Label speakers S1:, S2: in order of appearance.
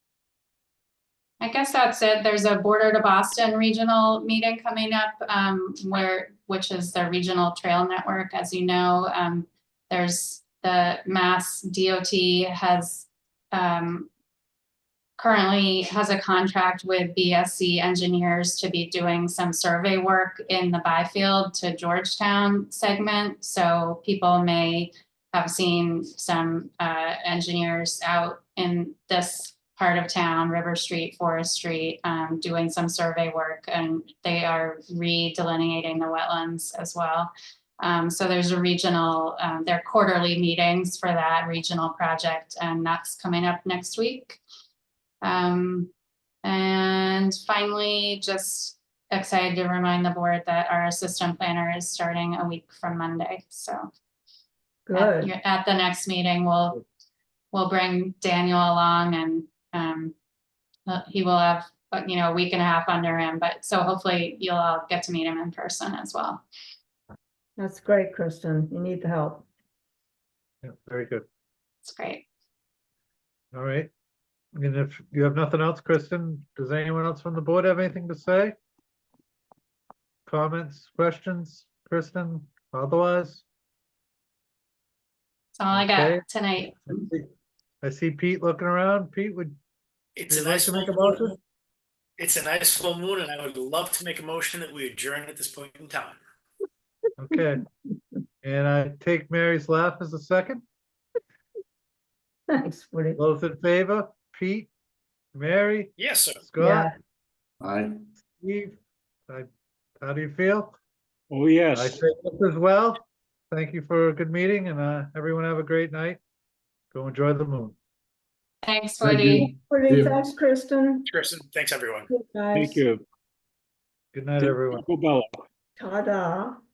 S1: I guess that's it. There's a Border to Boston regional meeting coming up, um, where, which is the regional trail network, as you know. Um, there's the Mass DOT has, um, currently has a contract with BSC engineers to be doing some survey work in the Byfield to Georgetown segment. So people may have seen some, uh, engineers out in this part of town, River Street, Forest Street, um, doing some survey work, and they are redelineating the wetlands as well. Um, so there's a regional, um, there are quarterly meetings for that regional project, and that's coming up next week. Um, and finally, just excited to remind the board that our assistant planner is starting a week from Monday, so at
S2: Good.
S1: your- At the next meeting, we'll, we'll bring Daniel along and, um, uh, he will have, uh, you know, a week and a half under him, but so hopefully you'll all get to meet him in person as well.
S2: That's great, Kristen. You need the help.
S3: Yeah, very good.
S1: It's great.
S3: All right. And if you have nothing else, Kristen, does anyone else from the board have anything to say? Comments, questions, Kristen, otherwise?
S1: That's all I
S3: Okay.
S1: got tonight.
S3: I see Pete looking around. Pete, would
S4: It's
S3: you
S4: a
S3: like
S4: nice
S3: to make a
S4: full moon.
S3: motion?
S4: It's a nice full moon, and I would love to make a motion that we adjourn at this point in time.
S3: Okay. And I take Mary's laugh as a second.
S2: Thanks, Woody.
S3: Those in favor, Pete, Mary,
S4: Yes, sir.
S3: Scott,
S5: Aye.
S3: Steve? I- How do you feel?
S6: Oh,
S3: I
S6: yes.
S3: say this as well. Thank you for a good meeting and uh, everyone have a great night. Go enjoy the moon.
S1: Thanks,
S5: Thank you.
S1: Woody.
S2: Woody,
S5: Yeah.
S2: thanks, Kristen.
S4: Kristen, thanks, everyone.
S2: Good,
S6: Thank
S2: guys.
S6: you.
S3: Good night, everyone.
S6: Taco Bell.
S2: Ta-da.